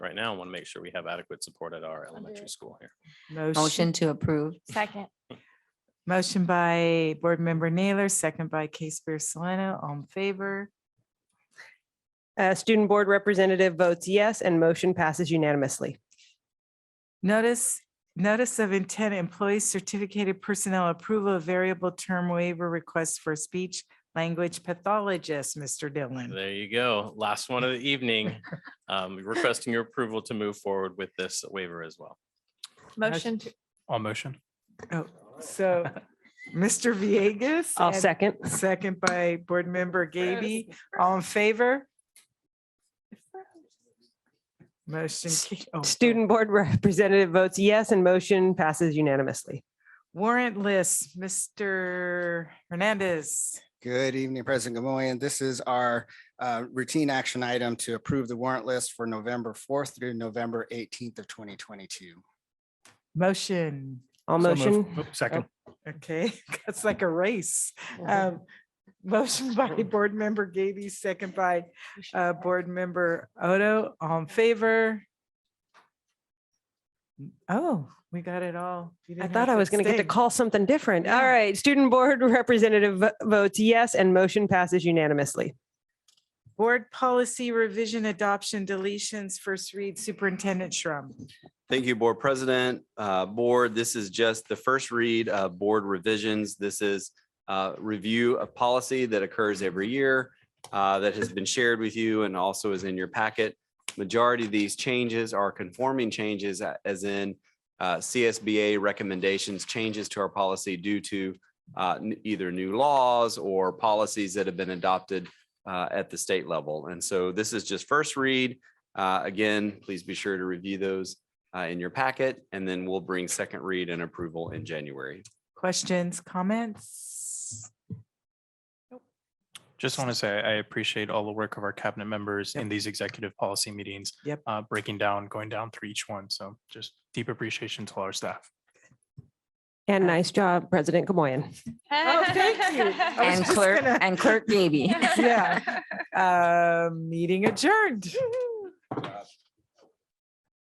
right now. I Want to make sure we have adequate support at our elementary school here. Motion to approve. Second. Motion by Board Member Naylor, second by Case Beer Solano, all in favor. Uh, Student Board Representative votes yes and motion passes unanimously. Notice, notice of intent, employee certificated personnel approval of variable term waiver request for speech language pathologist, Mr. Dillon. There you go. Last one of the evening. Um, requesting your approval to move forward with this waiver as well. Motion to, All motion. Oh, So, Mr. Viegas. I'll and second. Second by Board Member Gaby, all in favor? Motion. ca- oh, Student Board Representative votes yes and motion passes unanimously. Warrant list, Mr. Hernandez. Good evening, President Gamoyan. This is our uh, routine action item to approve the warrant list for November 4th through November 18th of 2022. Motion, All So moved. motion. Oh, Second. okay, that's like a race. Uh-huh. Um, Motion by Board Member Gaby, second by uh, Board Member Odo, all in favor? Oh, we got it all. You I didn't have thought I was going to get to abstain. call something different. All Yeah. right, Student Board Representative vo- votes yes and motion passes unanimously. Board Policy Revision Adoption Deletions, first read Superintendent Shrum. Thank you, Board President. Uh, Board, this is just the first read of board revisions. This is uh, review of policy that occurs every year uh, that has been shared with you and also is in your packet. Majority of these changes are conforming changes uh, as in uh, CSBA recommendations, changes to our policy due to uh, n- either new laws or policies that have been adopted uh, at the state level. And so this is just first read. Uh, Again, please be sure to review those uh, in your packet, and then we'll bring second read and approval in January. Questions, comments? Just want to say I appreciate all the work of our cabinet members in these executive policy meetings. Yep. uh, Breaking down, going down through each one. So just deep appreciation to all our staff. And nice job, President Gamoyen. Oh, thank you. I was And just clerk, gonna- and clerk Gaby. Yeah. Uh, Meeting adjourned.